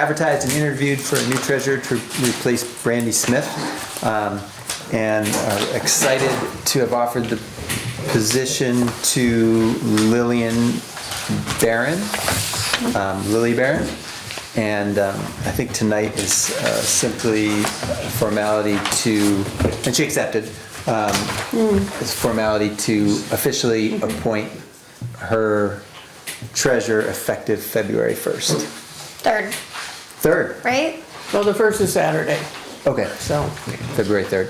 advertised and interviewed for a new treasurer to replace Brandy Smith, um, and are excited to have offered the position to Lillian Barron, um, Lily Barron. And um, I think tonight is uh, simply a formality to, and she accepted, um, it's a formality to officially appoint her treasurer effective February 1st. Third, Third, right? Well, the first is Saturday, okay, so February 3rd.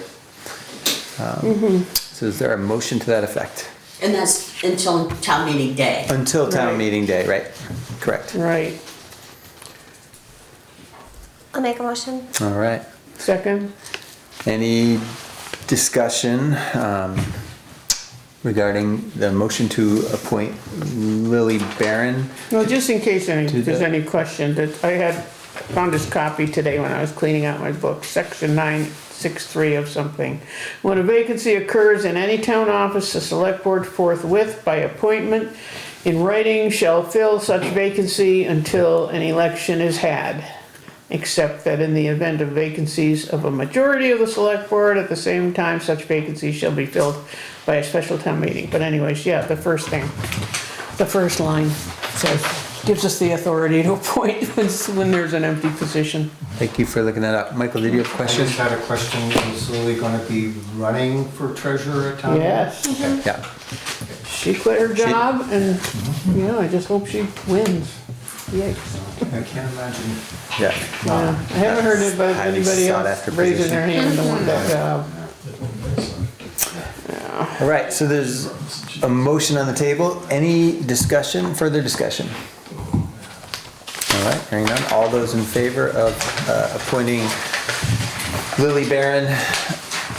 Um, So is there a motion to that effect? And that's until town meeting day. Until town Right. meeting day, right? Correct. right. I'll make a motion. All right. Second, Any discussion um, regarding the motion to appoint Lily Barron? well, just in case any, Do there's that. any question, that I had found this copy today when I was cleaning out my book, section nine six three of something. When a vacancy occurs in any town office, the select board forthwith by appointment in writing shall fill such vacancy until an election is had. except that in the event of vacancies of a majority of the select board, at the same time, such vacancies shall be filled by a special town meeting. But anyways, yeah, the first thing, the first line says, gives us the authority to appoint when, when there's an empty position. Thank you for looking that up. Michael, did you have a I question? just had a question, is Lily gonna be running for treasurer at town? Yes, Yeah. she quit her job and, you know, I just hope she wins. Yikes. I can't imagine. Yeah. Yeah, I haven't heard it about Highly anybody sought else after raising position. their hand to want that uh, job. All right, so there's a motion on the table. Any discussion, further discussion? All right, hearing none. All those in favor of uh, appointing Lily Barron,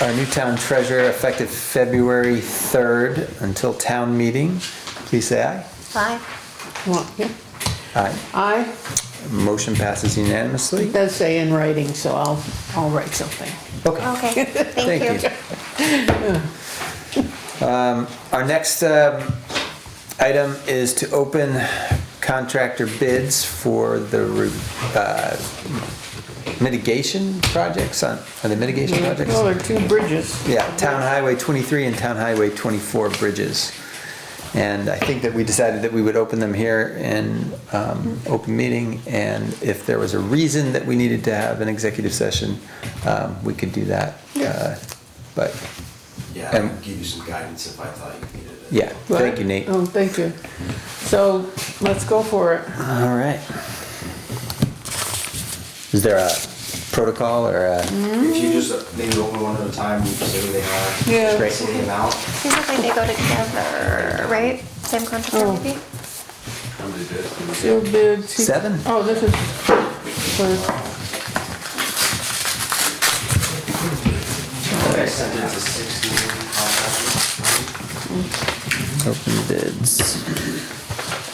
our new town treasurer, effective February 3rd until town meeting, please say aye. Five. Want- yeah. Aye. Aye, Motion passes unanimously. it does say in writing, so I'll, I'll write something. Okay. Okay, thank Thank you. you. Um, Our next um, item is to open contractor bids for the re- uh, mitigation projects on, are they mitigation projects? Well, there are two bridges. Yeah, Town Highway 23 and Town Highway 24 bridges. And I think that we decided that we would open them here in um, open meeting, and if there was a reason that we needed to have an executive session, um, we could do that. Uh, But, Yeah, And- I could give you some guidance if I thought you needed it. yeah, thank you, Nate. All Oh, thank you. So let's go for it. right. Is there a protocol or Mm-hmm. a, If you just uh, maybe open one at a time, you say who they are. Yeah. Great. Say the amount. Seems like they go together, right? Same contractor Oh. maybe? How many bids? Sealed bids. he- Seven. Oh, this is for, I sent it to sixteen contractors. open bids?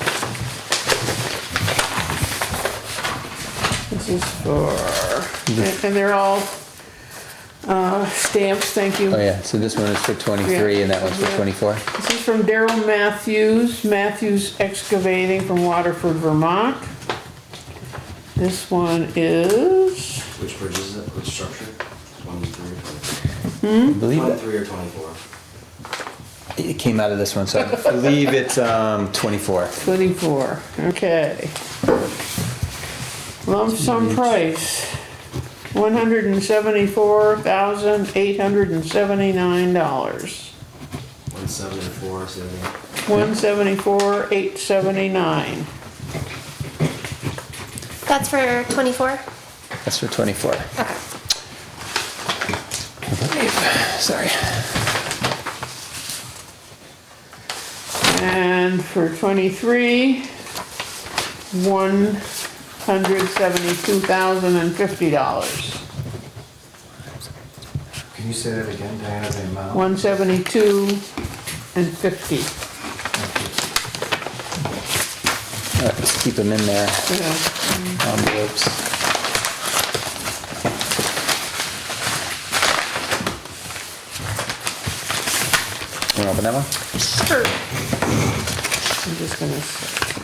this is for, and- and they're all uh, stamps, thank you. Oh, yeah, so this one is for 23 and that one's for Yeah. 24? This is from Daryl Matthews, Matthews Excavating from Waterford, Vermont. This one is, Which bridge is it? Which structure? One, three, or I believe that. twenty-three or twenty-four? It came out of this one, so I believe it's um, 24. 24, okay. Lump sum price, $174,879. One seventy-four, so they- 174,879. That's for twenty-four? That's for 24. Okay. Sorry. And for 23, $172,050. Can you say that again, Diana, the amount? 172 and 50. All right, Let's keep them in there, Um, Yeah. envelopes. Want to open that one? Sure. I'm just gonna, s-